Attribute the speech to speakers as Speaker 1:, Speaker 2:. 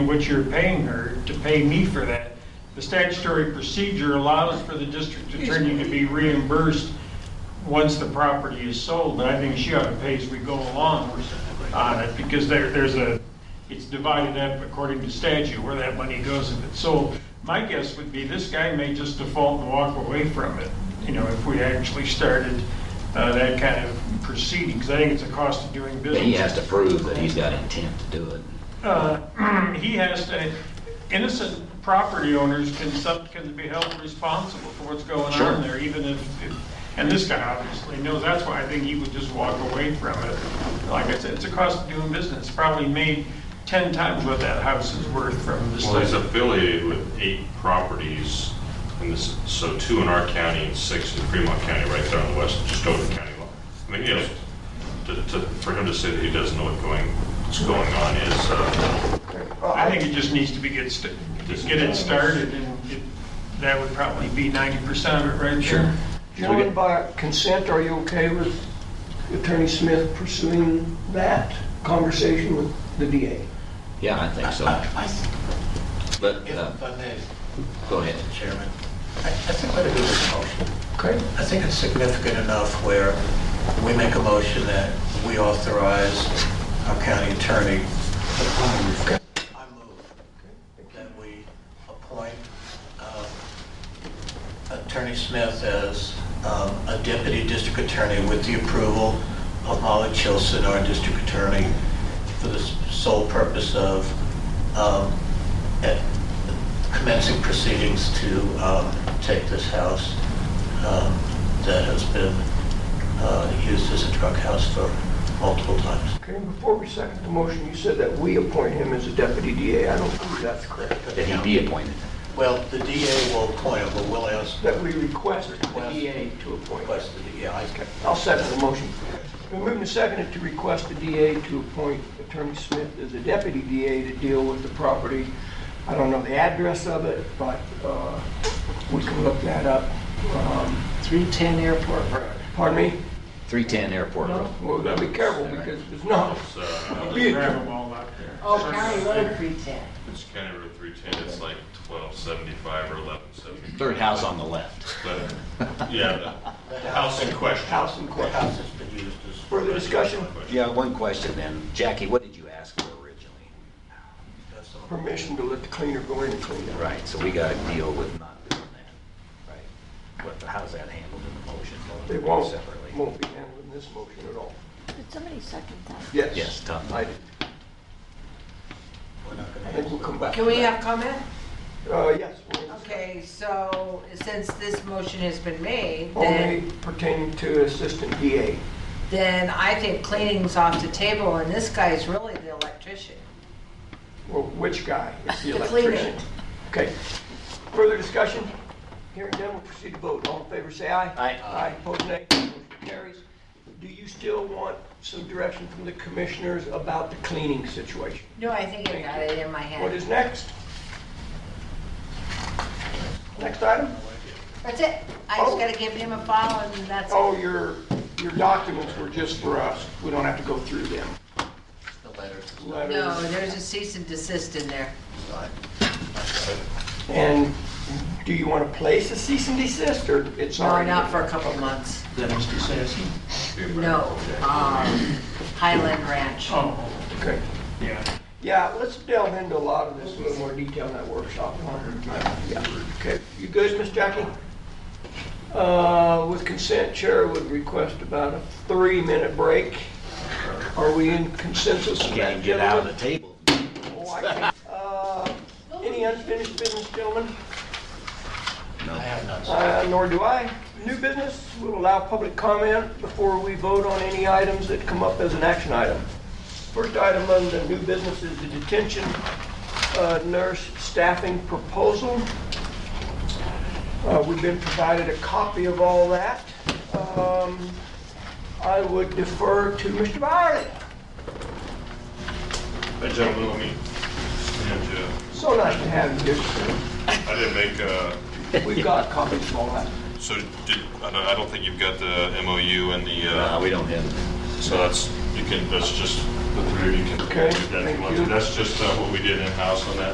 Speaker 1: which you're paying her to pay me for that. The statutory procedure allows for the district attorney to be reimbursed once the property is sold, but I think she ought to pay as we go along on it, because there, there's a, it's divided up according to statute where that money goes if it's sold. My guess would be this guy may just default and walk away from it, you know, if we actually started uh, that kind of proceeding, because I think it's a cost of doing business.
Speaker 2: He has to prove that he's got intent to do it.
Speaker 1: uh, he has to, innocent property owners can, some- can be held responsible for what's going
Speaker 2: Sure.
Speaker 1: on there, even if, if- and this guy obviously knows, that's why I think he would just walk away from it. Like I said, it's a cost of doing business, probably made 10 times what that house is worth from this.
Speaker 3: Well, he's
Speaker 1: thing.
Speaker 3: affiliated with eight properties, and this, so two in our county and six in Fremont County, right there on the west, just over the county line. I mean, you know, to, to, for him to say that he doesn't know what going, what's going on is, uh,
Speaker 1: I think it just needs to be get, st- get it started, and it- that would probably be 90% of it right there.
Speaker 4: Gentlemen, by consent, are you okay with Attorney Smith pursuing that conversation with the DA?
Speaker 2: Yeah, I think so.
Speaker 5: I think,
Speaker 2: But,
Speaker 5: if
Speaker 2: uh,
Speaker 5: I may,
Speaker 2: go ahead.
Speaker 5: Chairman, I I think what it is is motion.
Speaker 4: Okay.
Speaker 5: I think it's significant enough where we make a motion that we authorize our county attorney. I move that we appoint uh, Attorney Smith as um, a deputy district attorney with the approval of Molly Chilson, our district attorney, for the s- sole purpose of um, eh, commencing proceedings to um, take this house um, that has been uh, used as a drug house for multiple times.
Speaker 4: Okay, before we second the motion, you said that we appoint him as a deputy DA. I don't believe that's correct.
Speaker 2: That he be appointed.
Speaker 5: Well, the DA will appoint him, but we'll ask the
Speaker 4: That we request the DA to appoint.
Speaker 5: request of the DA. I-
Speaker 4: Okay, I'll second the motion. We're moving to second it to request the DA to appoint Attorney Smith as a deputy DA to deal with the property. I don't know the address of it, but uh, we can look that up. Um,
Speaker 6: 310 Airport Road.
Speaker 4: Pardon me?
Speaker 2: 310 Airport Road.
Speaker 4: Well, we gotta be careful because it's not.
Speaker 3: it's, uh,
Speaker 4: Be a-
Speaker 1: Grab them all out there.
Speaker 6: Oh, County Road 310.
Speaker 3: it's County Road 310, it's like 1275 or 1175.
Speaker 2: Third house on the left.
Speaker 3: But, Yeah, the house in question.
Speaker 4: House and
Speaker 5: The
Speaker 4: court.
Speaker 5: house has been used as.
Speaker 4: Further discussion?
Speaker 2: Yeah, one question then. Jackie, what did you ask for originally?
Speaker 5: That's all.
Speaker 4: Permission to let the cleaner go in and clean up.
Speaker 2: Right, so we gotta deal with not doing that, right? What, how's that handled in the motion?
Speaker 4: They won't,
Speaker 2: Separately?
Speaker 4: won't be handling this motion at all.
Speaker 7: Did somebody second that?
Speaker 4: Yes.
Speaker 2: Yes, Tom.
Speaker 4: I did.
Speaker 5: We're not gonna
Speaker 4: I think we'll come back.
Speaker 6: Can we have comment?
Speaker 4: Uh, yes. we'll-
Speaker 6: Okay, so since this motion has been made, then,
Speaker 4: Only pertaining to assistant DA.
Speaker 6: then I think cleaning's off the table and this guy's really the electrician.
Speaker 4: Well, which guy? It's the
Speaker 6: The cleaner.
Speaker 4: electrician. Okay. Further discussion? Hearing none, we'll proceed to vote. All in favor, say aye.
Speaker 2: Aye.
Speaker 4: Aye, opposed, nay. Motion carries. Do you still want some direction from the commissioners about the cleaning situation?
Speaker 6: No, I think I got it in my
Speaker 4: What
Speaker 6: head.
Speaker 4: is next? Next item?
Speaker 6: That's it. I just gotta give him a follow and that's
Speaker 4: Oh,
Speaker 6: it.
Speaker 4: your, your documents were just for us. We don't have to go through them.
Speaker 5: The letters is not
Speaker 6: No,
Speaker 4: Letters.
Speaker 6: there's a cease and desist in there.
Speaker 5: signed.
Speaker 4: And do you want to place a cease and desist, or it's
Speaker 6: No,
Speaker 4: already?
Speaker 6: not for a couple months.
Speaker 5: Letters to citizen?
Speaker 6: No, um, Highland Ranch.
Speaker 1: Oh,
Speaker 4: Okay.
Speaker 1: yeah.
Speaker 4: Yeah, let's delve into a lot of this in a little more detail in that workshop. Yeah. Okay, you good, Miss Jackie? Uh, With consent, Chair would request about a three-minute break. Are we in consensus on
Speaker 2: Can't
Speaker 4: that,
Speaker 2: even get out of the
Speaker 4: gentlemen?
Speaker 2: table.
Speaker 4: Oh, I can't. Uh, Any unfinished business, gentlemen?
Speaker 5: I have none. signed.
Speaker 4: Uh, Nor do I. New business, we'll allow public comment before we vote on any items that come up as an action item. First item on the new business is the detention uh, nurse staffing proposal. Uh, We've been provided a copy of all that. Um, I would defer to Mr. Byerly.
Speaker 3: Hey, gentlemen, let me, and, uh,
Speaker 4: So nice to have you here. sir.
Speaker 3: I didn't make, uh,
Speaker 4: We've got copies of all that.
Speaker 3: So did, I don't, I don't think you've got the MOU and the,
Speaker 2: Uh,
Speaker 3: uh,
Speaker 2: we don't have,
Speaker 3: so that's, you can, that's just the three of you can do
Speaker 4: Okay,
Speaker 3: that if
Speaker 4: thank
Speaker 3: you want to.
Speaker 4: you.
Speaker 3: That's just uh, what we did in-house on that